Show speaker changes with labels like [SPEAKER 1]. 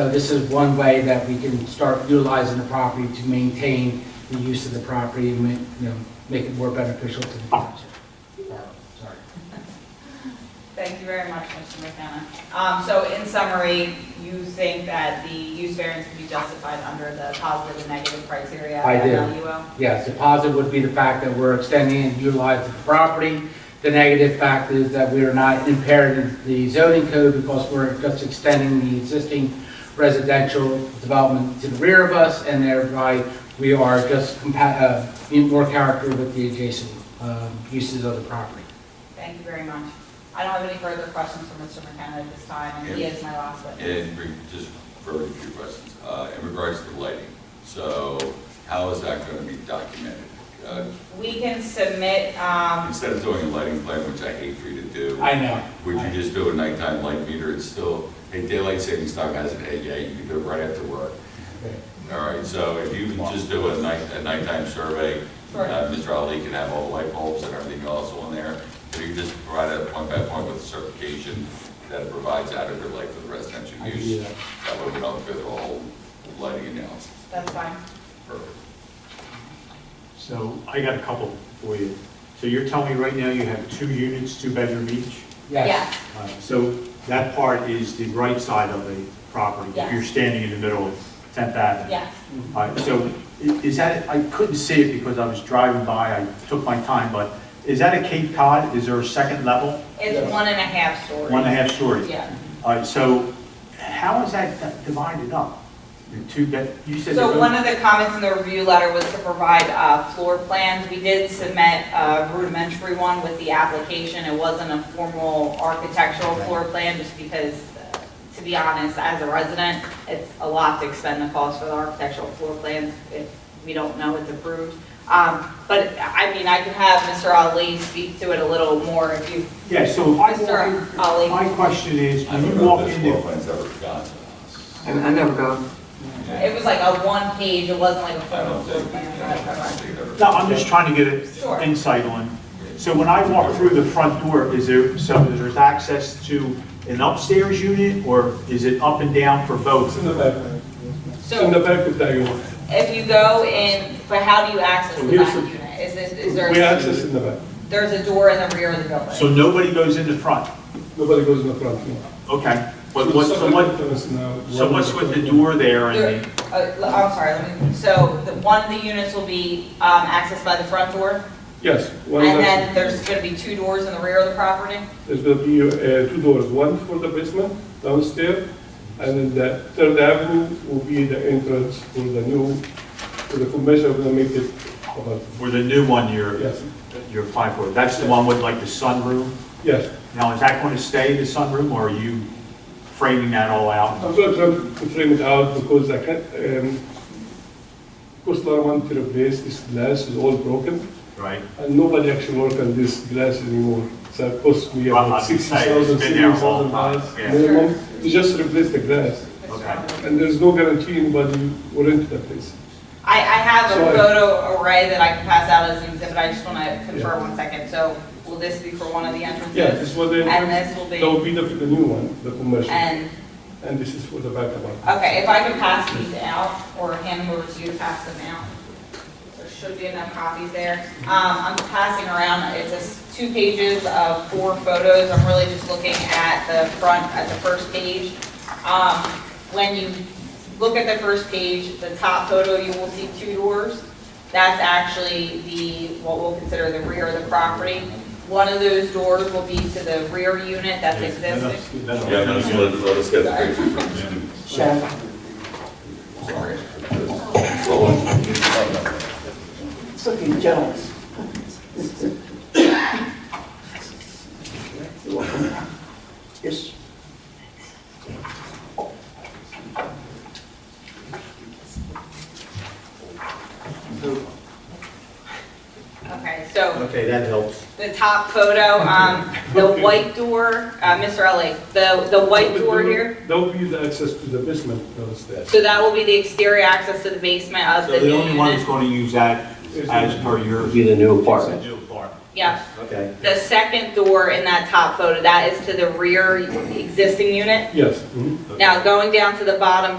[SPEAKER 1] So this is one way that we can start utilizing the property to maintain the use of the property and, ma- you know, make it more beneficial to the township. Or, Sorry.
[SPEAKER 2] Thank you very much, Mr. McKenna. Um, So in summary, you think that the use variance can be justified under the positive and negative criteria?
[SPEAKER 1] I do.
[SPEAKER 2] of LUO?
[SPEAKER 1] Yes, the positive would be the fact that we're extending and utilizing the property. The negative fact is that we are not impairing the zoning code because we're just extending the existing residential development to the rear of us, and thereby we are just compa, uh, in more character with the adjacent, um, uses of the property.
[SPEAKER 2] Thank you very much. I don't have any further questions for Mr. McKenna at this time, and he is my last witness.
[SPEAKER 3] And re- just very few questions, uh, in regards to lighting, so how is that gonna be documented? Uh,
[SPEAKER 2] We can submit, um,
[SPEAKER 3] Instead of doing a lighting plan, which I hate for you to do,
[SPEAKER 1] I know.
[SPEAKER 3] would you just do a nighttime light meter, it's still, hey, daylight savings time has it, hey, yeah, you can do it right after work. All right, so if you can just do a night, a nighttime survey,
[SPEAKER 2] Sure.
[SPEAKER 3] uh, Mr. Ali can have all the light bulbs and everything else on there, if you can just provide a point by point with a certification that it provides adequate light for the residential
[SPEAKER 1] I can
[SPEAKER 3] use.
[SPEAKER 1] do that.
[SPEAKER 3] That way we don't go through the whole lighting analysis.
[SPEAKER 2] that's fine.
[SPEAKER 3] Perfect.
[SPEAKER 4] So I got a couple for you. So you're telling me right now you have two units, two bedroom each?
[SPEAKER 1] Yes,
[SPEAKER 4] Uh, So that part is the right side of the property?
[SPEAKER 2] Yes.
[SPEAKER 4] You're standing in the middle of 10th Avenue?
[SPEAKER 2] Yes,
[SPEAKER 4] All right, so i- is that, I couldn't see it because I was driving by, I took my time, but is that a Cape Cod? Is there a second level?
[SPEAKER 2] it's one and a half stories.
[SPEAKER 4] One and a half stories?
[SPEAKER 2] Yeah.
[SPEAKER 4] All right, so how is that di- divided up? The two bed, you said.
[SPEAKER 2] So
[SPEAKER 4] they're-
[SPEAKER 2] one of the comments in the review letter was to provide uh, floor plans. We did submit a rudimentary one with the application. It wasn't a formal architectural floor plan, just because, uh, to be honest, as a resident, it's a lot to expend the cost for the architectural floor plans if we don't know it's approved. Um, But, I mean, I could have Mr. Ali speak to it a little more if you,
[SPEAKER 4] Yeah, so if I walk in-
[SPEAKER 2] Mr. Ali.
[SPEAKER 4] my question is,
[SPEAKER 3] I
[SPEAKER 4] when
[SPEAKER 3] don't
[SPEAKER 4] you
[SPEAKER 3] know
[SPEAKER 4] walk
[SPEAKER 3] if this
[SPEAKER 4] in
[SPEAKER 3] floor
[SPEAKER 4] there,
[SPEAKER 3] plan's ever gotten to us.
[SPEAKER 5] I I never got,
[SPEAKER 2] It was like a one page, it wasn't like a
[SPEAKER 3] I
[SPEAKER 2] formal
[SPEAKER 3] don't
[SPEAKER 2] floor
[SPEAKER 3] think,
[SPEAKER 2] plan.
[SPEAKER 3] I don't think it ever.
[SPEAKER 4] No, I'm just trying to get
[SPEAKER 2] Sure.
[SPEAKER 4] an insight on. So when I walk through the front door, is there, so there's access to an upstairs unit, or is it up and down for
[SPEAKER 6] It's
[SPEAKER 4] both?
[SPEAKER 6] in the back. It's in the back of the unit.
[SPEAKER 2] If you go in, but how do you access
[SPEAKER 6] So
[SPEAKER 2] the
[SPEAKER 6] here's
[SPEAKER 2] back
[SPEAKER 6] the-
[SPEAKER 2] unit? Is it, is there,
[SPEAKER 6] We access in the back.
[SPEAKER 2] there's a door in the rear of the
[SPEAKER 4] So
[SPEAKER 2] building?
[SPEAKER 4] nobody goes in the front?
[SPEAKER 6] Nobody goes in the front. no.
[SPEAKER 4] Okay. But
[SPEAKER 6] So
[SPEAKER 4] what, so
[SPEAKER 6] second
[SPEAKER 4] what,
[SPEAKER 6] entrance now,
[SPEAKER 4] so
[SPEAKER 6] one
[SPEAKER 4] what's
[SPEAKER 6] is
[SPEAKER 4] with the
[SPEAKER 6] front
[SPEAKER 4] door there
[SPEAKER 2] There-
[SPEAKER 4] and the,
[SPEAKER 2] uh, l- I'm sorry, let me, so the, one of the units will be, um, accessed by the front door?
[SPEAKER 6] Yes. one is
[SPEAKER 2] And then
[SPEAKER 6] access.
[SPEAKER 2] there's gonna be two doors in the rear of the property?
[SPEAKER 6] There's going to be uh, two doors, one for the basement downstairs, and then the third avenue will be the entrance for the new, for the commercial, we're going to make it about,
[SPEAKER 4] for the new one you're,
[SPEAKER 6] yes,
[SPEAKER 4] you're applying for? That's the one with like the sunroom?
[SPEAKER 6] yes.
[SPEAKER 4] Now, is that going to stay the sunroom, or are you framing that all out?
[SPEAKER 6] I'm going to try to frame it out because I can't, um, of course, I want to replace this glass, it's all broken.
[SPEAKER 4] Right?
[SPEAKER 6] And nobody actually work on this glass anymore. So it cost me
[SPEAKER 4] Well,
[SPEAKER 6] about
[SPEAKER 4] I would
[SPEAKER 6] sixty
[SPEAKER 4] say it's
[SPEAKER 6] thousand,
[SPEAKER 4] been there
[SPEAKER 6] seventy
[SPEAKER 4] a long
[SPEAKER 6] thousand
[SPEAKER 4] time,
[SPEAKER 6] dollars
[SPEAKER 4] yeah.
[SPEAKER 6] minimum to just replace the glass. And there's no guarantee anybody will rent the place.
[SPEAKER 2] I, I have a
[SPEAKER 6] Sorry.
[SPEAKER 2] photo array that I can pass out as an exhibit, I just wanna confer one second. So will this be for one of the entrances?
[SPEAKER 6] Yeah, this was the,
[SPEAKER 2] And
[SPEAKER 6] that
[SPEAKER 2] this will
[SPEAKER 6] would
[SPEAKER 2] be,
[SPEAKER 6] be the, the new one, the commercial.
[SPEAKER 2] and,
[SPEAKER 6] And this is for the back apartment.
[SPEAKER 2] okay, if I can pass these out or hand them over to you to pass them out. There should be enough copies there. Um, I'm passing around, it's just two pages of four photos. I'm really just looking at the front, at the first page. Um, when you look at the first page, the top photo, you will see two doors. That's actually the, what we'll consider the rear of the property. One of those doors will be to the rear unit that's existing.
[SPEAKER 3] Yeah, no, so let, let us get the picture from him.
[SPEAKER 5] Chef,
[SPEAKER 3] Sorry. Well,
[SPEAKER 5] it's looking jealous. Yes.
[SPEAKER 2] Okay, so
[SPEAKER 4] Okay, that helps.
[SPEAKER 2] the top photo, um, the white door, uh, Mr. Ellie, the, the white door here.
[SPEAKER 6] That would be the access to the basement downstairs.
[SPEAKER 2] So that will be the exterior access to the basement of
[SPEAKER 4] So
[SPEAKER 2] the
[SPEAKER 4] the
[SPEAKER 2] new
[SPEAKER 4] only one that's
[SPEAKER 2] unit.
[SPEAKER 4] going to use that
[SPEAKER 6] Is
[SPEAKER 4] as
[SPEAKER 6] it-
[SPEAKER 4] per your.
[SPEAKER 7] Be the new
[SPEAKER 4] It's a
[SPEAKER 7] apartment.
[SPEAKER 4] new apartment.
[SPEAKER 2] Yep.
[SPEAKER 7] Okay.
[SPEAKER 2] The second door in that top photo, that is to the rear existing unit.
[SPEAKER 6] Yes. mhm.
[SPEAKER 2] Now, going down to the bottom